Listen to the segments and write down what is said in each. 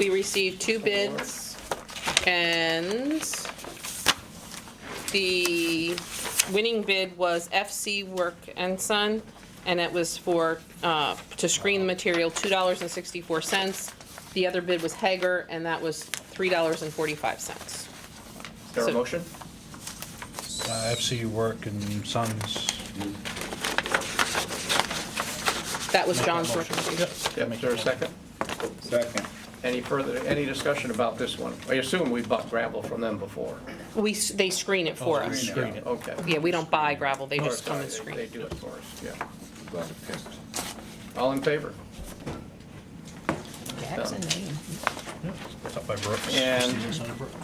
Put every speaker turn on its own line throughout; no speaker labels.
We received two bids, and the winning bid was FC Work and Son, and it was for, uh, to screen the material, $2.64. The other bid was Hager, and that was $3.45.
Is there a
So-
motion?
Uh, FC Work and Sons.
That was
Make that
John's
motion.
recommendation.
Yep.
Yep, is there a second?
Second.
Any further, any discussion about this one? I assume we bought gravel from them before.
We, s- they screen it for
Oh,
us.
screen it.
Okay.
Yeah, we don't buy gravel, they
Or
just come
sorry,
and
they-
screen
They
it.
do it for us, yeah.
Glad it passed.
All in favor?
Jack's a name.
It's up by Brooks.
And-
It's under Brooks.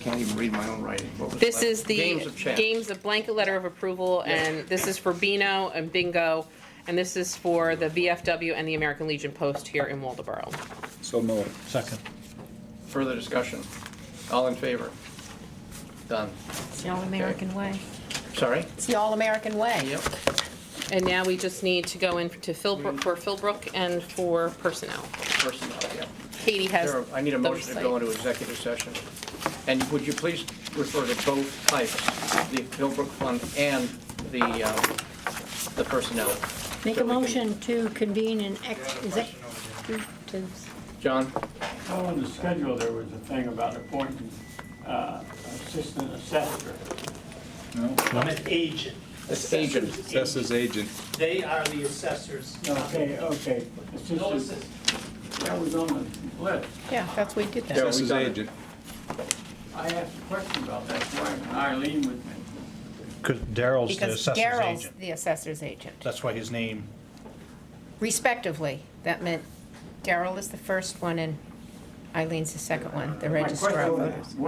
Can't even read my own writing. What was
This
left?
is the
Games of chance.
games of blanket letter of approval, and this is for Beano and Bingo, and this is for the VFW and the American Legion Post here in Waldeboro.
So moved.
Second.
Further discussion? All in favor? Done.
It's the all-American way.
Sorry?
It's the all-American way.
Yep.
And now we just need to go in to Philbrook, for Philbrook and for personnel.
Personnel, yeah.
Katie has
There- I need a
those
motion to go
sites.
into executive session. And would you please refer to both types, the Philbrook Fund and the, um, the personnel?
Make
So
a
we can-
motion to convene an ex, is it, to-
John?
Oh, in the schedule, there was a thing about appointing uh, assistant assessor.
I'm an agent.
That's agent.
Assessor's
That's his agent.
They are the assessors.
Okay, okay.
No
Assistant,
assist-
that was on the list.
Yeah, that's, we did
Yeah,
that.
That's
we
his
done it.
agent.
I asked a question about that, why wasn't Eileen with me?
Because Daryl's the
Because
assessor's
Daryl's
agent.
the assessor's agent,
That's why his name,
respectively. That meant Daryl is the first one and Eileen's the second one, the registrar of
My
voters.
question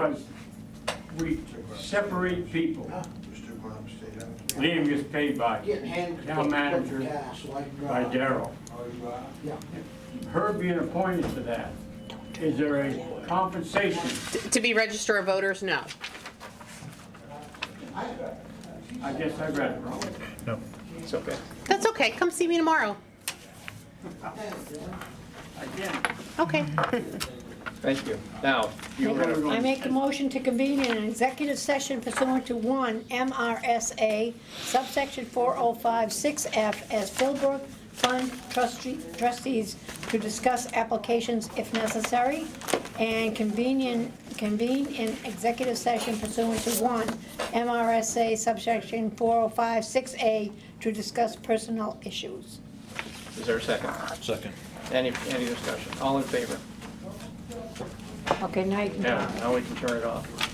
was, we separate people.
Mr. Bob stayed out.
Liam gets paid by
Getting hand.
town manager, by Daryl.
Yeah.
Her being appointed to that, is there a compensation?
To be register of voters, no.
I guess I read it wrong.
no.
It's okay.
That's okay, come see me tomorrow.
Again,
Okay.
Thank you. Now, you were gonna-
I make a motion to convene in an executive session pursuant to one MRSA subsection 4056F as Philbrook Fund trustee- trustees to discuss applications if necessary and convene in- convene in executive session pursuant to one MRSA subsection 4056A to discuss personnel issues.
is there a second?
Second.
Any, any discussion? All in favor?
Okay, now you can.
Now, now we can turn it off.